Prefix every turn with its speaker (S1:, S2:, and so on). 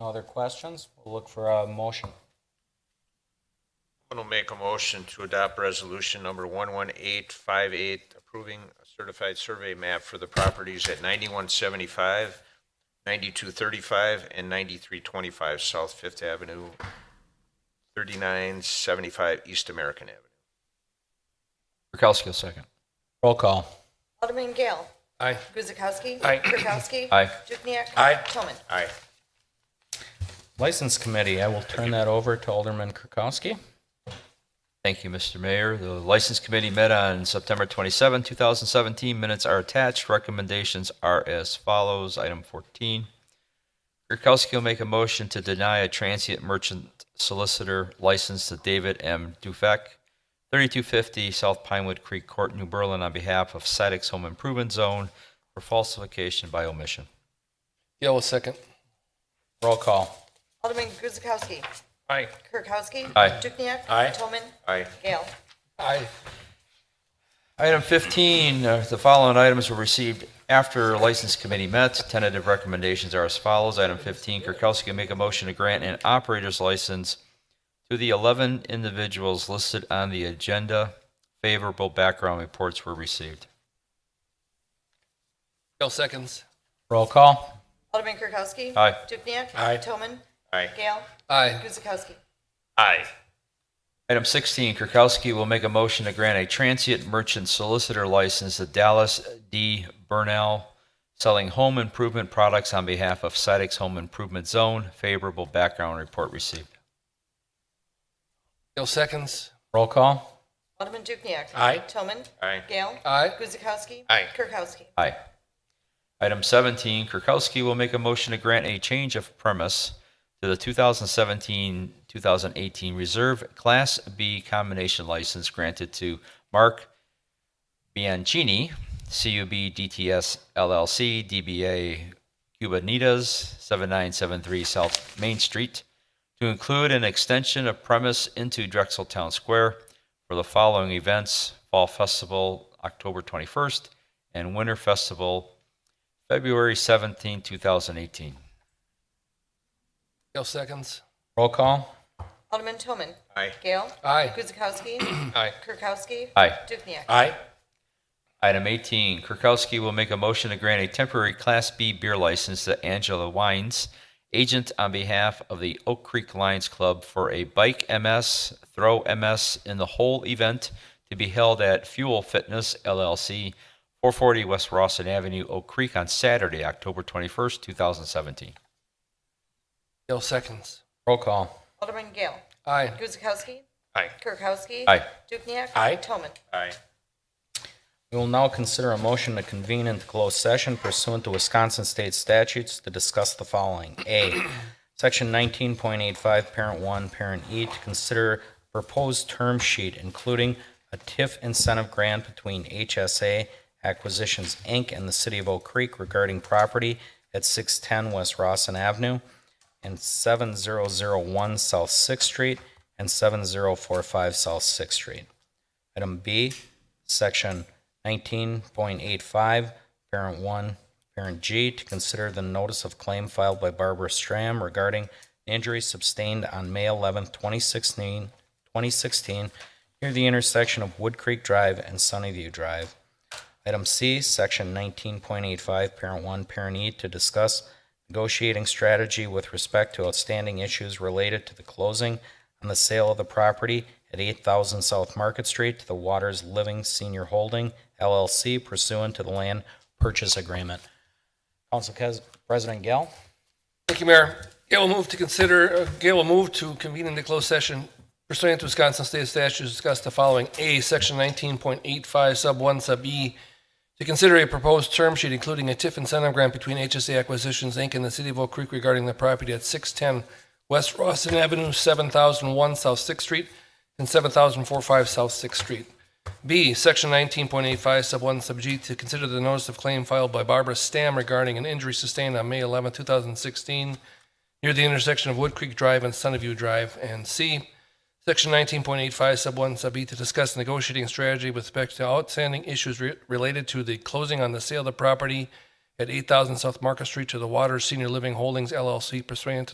S1: No other questions? We'll look for a motion.
S2: Someone will make a motion to adopt resolution number 11858, approving a certified survey map for the properties at 9175, 9235, and 9325 South Fifth Avenue, 3975 East American Avenue.
S3: Kirkowski will second.
S1: Roll call.
S4: Alderman Gale.
S3: Aye.
S4: Guzekowski.
S3: Aye.
S4: Kirkowski.
S3: Aye.
S4: Dukenyak.
S3: Aye.
S4: Toman.
S2: Aye.
S1: License Committee, I will turn that over to Alderman Kirkowski.
S3: Thank you, Mr. Mayor. The License Committee met on September 27, 2017. Minutes are attached. Recommendations are as follows. Item 14. Kirkowski will make a motion to deny a transient merchant solicitor license to David M. Dufek, 3250 South Pinewood Creek Court, New Berlin, on behalf of Sidex Home Improvement Zone for falsification by omission.
S5: Gale will second.
S1: Roll call.
S4: Alderman Guzekowski.
S5: Aye.
S4: Kirkowski.
S3: Aye.
S4: Dukenyak.
S5: Aye.
S4: Toman.
S2: Aye.
S4: Gale.
S5: Aye.
S3: Item 15, uh, the following items were received after License Committee met. Tentative recommendations are as follows. Item 15, Kirkowski make a motion to grant an operator's license to the 11 individuals listed on the agenda. Favorable background reports were received.
S5: Gale seconds.
S1: Roll call.
S4: Alderman Kirkowski.
S3: Aye.
S4: Dukenyak.
S5: Aye.
S4: Toman.
S2: Aye.
S4: Gale.
S5: Aye.
S4: Guzekowski.
S2: Aye.
S3: Item 16, Kirkowski will make a motion to grant a transient merchant solicitor license to Dallas D. Burnell, selling home improvement products on behalf of Sidex Home Improvement Zone. Favorable background report received.
S5: Gale seconds.
S1: Roll call.
S4: Alderman Dukenyak.
S5: Aye.
S4: Toman.
S2: Aye.
S4: Gale.
S5: Aye.
S4: Guzekowski.
S2: Aye.
S4: Kirkowski.
S3: Aye. Item 17, Kirkowski will make a motion to grant a change of premise to the 2017-2018 Reserve Class B Combination License granted to Mark Bianchini, CUB DTS LLC, DBA Cubanitas, 7973 South Main Street, to include an extension of premise into Drexel Town Square for the following events: Fall Festival, October 21st, and Winter Festival, February 17, 2018.
S5: Gale seconds.
S1: Roll call.
S4: Alderman Toman.
S2: Aye.
S4: Gale.
S5: Aye.
S4: Guzekowski.
S5: Aye.
S4: Kirkowski.
S3: Aye.
S4: Dukenyak.
S5: Aye.
S3: Item 18, Kirkowski will make a motion to grant a temporary Class B beer license to Angela Wines, agent on behalf of the Oak Creek Lions Club for a Bike MS, Throw MS in the whole event to be held at Fuel Fitness LLC, 440 West Rawson Avenue, Oak Creek on Saturday, October 21st, 2017.
S5: Gale seconds.
S1: Roll call.
S4: Alderman Gale.
S5: Aye.
S4: Guzekowski.
S2: Aye.
S4: Kirkowski.
S3: Aye.
S4: Dukenyak.
S5: Aye.
S4: Toman.
S2: Aye.
S1: We will now consider a motion to convene into closed session pursuant to Wisconsin State statutes to discuss the following. A, Section 19.85, Parent 1, Parent E, to consider proposed term sheet, including a TIF incentive grant between HSA Acquisitions, Inc. and the City of Oak Creek regarding property at 610 West Rossin Avenue and 7001 South Sixth Street and 7045 South Sixth Street. Item B, Section 19.85, Parent 1, Parent G, to consider the notice of claim filed by Barbara Stram regarding injury sustained on May 11, 2016, 2016, near the intersection of Wood Creek Drive and Sunnyview Drive. Item C, Section 19.85, Parent 1, Parent E, to discuss negotiating strategy with respect to outstanding issues related to the closing on the sale of the property at 8,000 South Market Street to the Waters Living Senior Holding LLC pursuant to the land purchase agreement. Council Cas- President Gale?
S5: Thank you, Mayor. Gale will move to consider, uh, Gale will move to convene into closed session pursuant to Wisconsin State statutes discuss the following. A, section 19.85 sub 1 sub E, to consider a proposed term sheet including a TIF incentive grant between HSA Acquisitions, Inc. and the City of Oak Creek regarding the property at 610 West Rawson Avenue, 7001 South Sixth Street, and 7045 South Sixth Street. B, Section 19.85, Sub 1, Sub G, to consider the notice of claim filed by Barbara Stam regarding an injury sustained on May 11, 2016, near the intersection of Wood Creek Drive and Sunnyview Drive. And C, Section 19.85, Sub 1, Sub E, to discuss negotiating strategy with respect to outstanding issues re- related to the closing on the sale of the property at 8,000 South Market Street to the Waters Senior Living Holdings LLC pursuant to